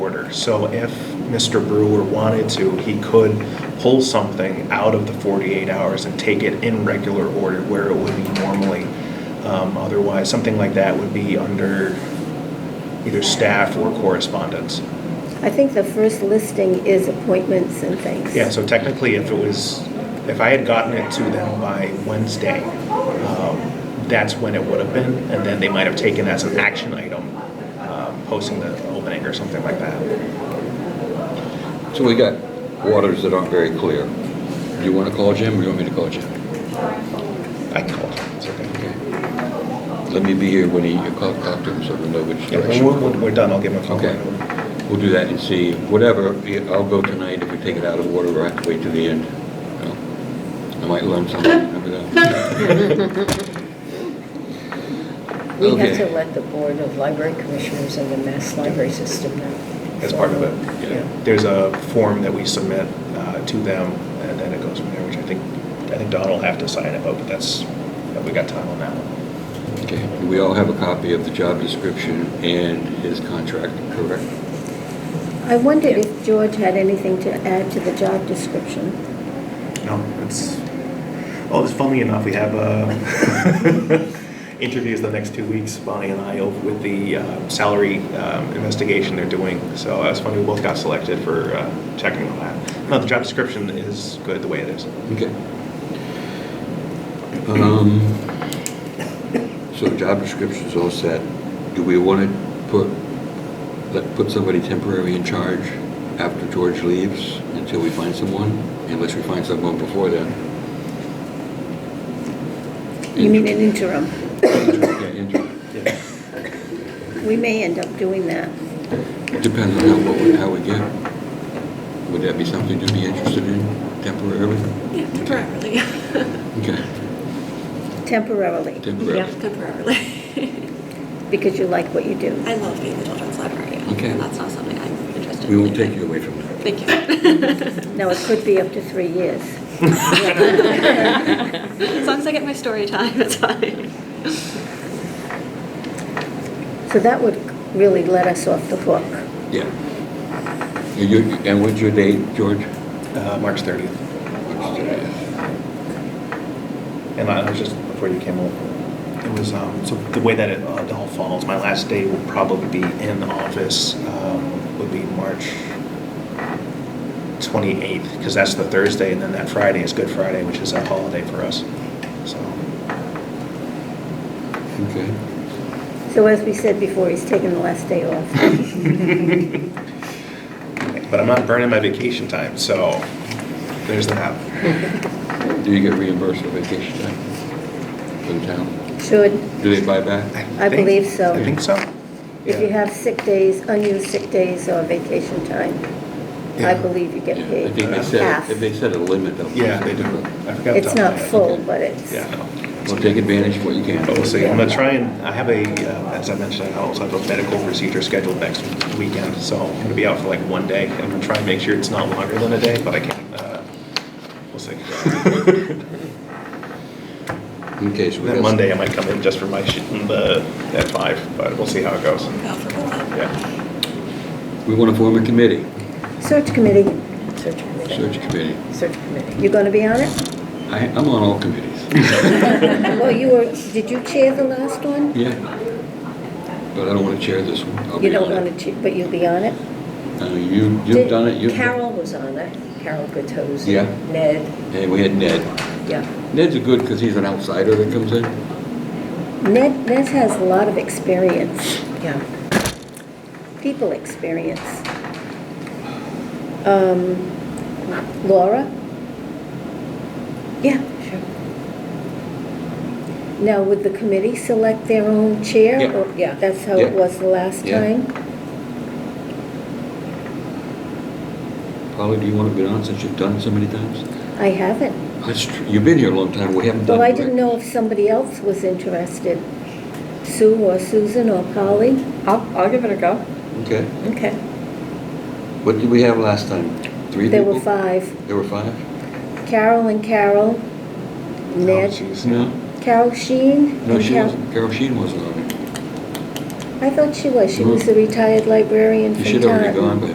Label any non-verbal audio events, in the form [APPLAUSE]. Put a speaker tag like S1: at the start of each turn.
S1: order. So if Mr. Brewer wanted to, he could pull something out of the 48 hours and take it in regular order where it would be normally. Um, Otherwise, something like that would be under either staff or correspondence.
S2: I think the first listing is appointments and things.
S1: Yeah, so technically, if it was, if I had gotten it to them by Wednesday, um, that's when it would have been, and then they might have taken as an action item, um, posting the opening or something like that.
S3: So we got waters that aren't very clear. Do you want to call Jim, or you want me to call Jim?
S1: I can call them, it's okay.
S3: Okay. Let me be here when he, you call, talk to him, so we know which
S1: Yeah,
S3: direction.
S1: when we're, we're done, I'll give him a phone.
S3: Okay, we'll do that and see, whatever, I'll go tonight, if we take it out of order, we'll have to wait to the end. I might learn something, remember that?
S4: [LAUGHS] We have
S3: Okay.
S4: to let the Board of Library Commissioners and the Mass Library System know.
S1: [LAUGHS] As part of it.
S4: Yeah.
S1: There's a form that we submit uh, to them, and then it goes from there, which I think, I think Don will have to sign it, but that's, we got time on that one.
S3: Okay, we all have a copy of the job description and his contract, correct?
S2: I wondered if George had anything to add to the job description.
S1: No, it's, oh, it's funny enough, we have uh, [LAUGHS] interviews the next two weeks, Bonnie and I, over with the um, salary um, investigation they're doing. So uh, it's funny, we both got selected for uh, checking on that. No, the job description is good the way it is.
S3: Okay. Um, So job description's all set. Do we want to put, let, put somebody temporary in charge after George leaves until we find someone? Unless we find someone before then?
S2: You mean an interim?
S3: Interim, yeah, interim.
S2: [COUGHS] We may end up doing that.
S3: Depends on how, what we- how we get. Would that be something to be interested in temporarily?
S5: Yeah, temporarily. [LAUGHS]
S3: Okay,
S2: Temporarily,
S3: temporary.
S5: Yeah, temporarily. [LAUGHS]
S2: because you like what you do.
S5: I love being the children's librarian.
S3: Okay.
S5: And that's not something I'm interested in.
S3: We won't take you away from that. [LAUGHS]
S5: [LAUGHS] Thank you.
S2: Now, it
S5: [LAUGHS]
S2: could be up to three years. [LAUGHS]
S5: As long as I get my story time, it's fine.
S2: So that would really let us off the hook.
S3: Yeah. And you- And what's your date, George?
S1: Uh, March 30th. And I was just, before you came over, it was, um, so the way that it uh, all falls, my last day will probably be in office, um, would be March 28th, because that's the Thursday, and then that Friday is Good Friday, which is a holiday for us. [LAUGHS] So,
S3: Okay.
S2: So as we said before, he's taking the last day
S1: [LAUGHS]
S2: off.
S1: but I'm not burning my vacation time, so there's that.
S3: Do you get reimbursed for vacation time for the town?
S2: Should,
S3: Do they buy back?
S2: I
S1: think-
S2: believe so.
S1: I think so.
S2: if you
S1: Yeah.
S2: have sick days, unused sick days or vacation time, I
S1: Yeah.
S2: believe you get
S3: Yeah, I
S2: paid
S3: think they
S2: half.
S3: said, they set a limit of.
S1: Yeah, they do. I forgot
S2: It's
S1: to tell
S2: not
S1: you.
S2: full, but it's.
S1: Yeah, no.
S3: Well, take advantage of what you can.
S1: But Oh, we'll see. I'm gonna try and, I have a, uh, as I mentioned, I also have a medical procedure scheduled next weekend, so I'm gonna be out for like one day. I'm gonna try and make sure it's not longer than a day, but I can't, uh, we'll see.
S3: Okay, so we
S1: Then
S3: got.
S1: Monday, I might come in just for my, sh- the, at five, but we'll see how it goes.
S5: Go for it.
S1: Yeah.
S3: We want to form a committee,
S2: Search committee,
S4: Search committee.
S3: search committee.
S4: Search committee.
S2: you going to be
S1: [LAUGHS]
S2: on it?
S3: I, I'm on all
S2: [LAUGHS]
S3: committees.
S2: Well, you were, did you chair the last one?
S3: Yeah. But I don't want to chair this one. I'll
S2: You
S3: be
S2: don't
S3: on it.
S2: want to, but you'll be on it?
S3: Uh, You, you've done it, you've.
S4: Carol was on it, Carol Gattozzi.
S3: Yeah.
S4: Ned,
S3: And we had Ned.
S4: yeah.
S3: Ned's a good because he's an outsider that comes in.
S2: Ned, Ned has a lot of experience,
S4: Yeah.
S2: people experience. Um, Laura? Yeah. Now, would the committee select their own chair?
S3: Yeah.
S2: or-
S4: Yeah.
S2: That's how it
S3: Yeah.
S2: was the last
S3: Yeah.
S2: time?
S3: Polly, do you want to be on since you've done it so many times?
S2: I haven't.
S3: That's true. You've been here a long time. We haven't done.
S2: Well, I
S3: it,
S2: didn't
S3: right?
S2: know if somebody else was interested, Sue or Susan or Polly.
S4: I'll, I'll give it a go.
S3: Okay.
S4: Okay.
S3: What did we have last time? Three
S2: There
S3: people?
S2: were five,
S3: There were five?
S2: Carol and Carol,
S1: Oh,
S2: Ned,
S1: jeez.
S3: Oh, No.
S2: Carol Sheen.
S3: No,
S2: and
S3: she
S2: Carol-
S3: wasn't. Carol Sheen wasn't on it. I thought she was. She was the retired librarian
S2: You
S3: from
S2: should have already gone
S3: Taunton.
S2: by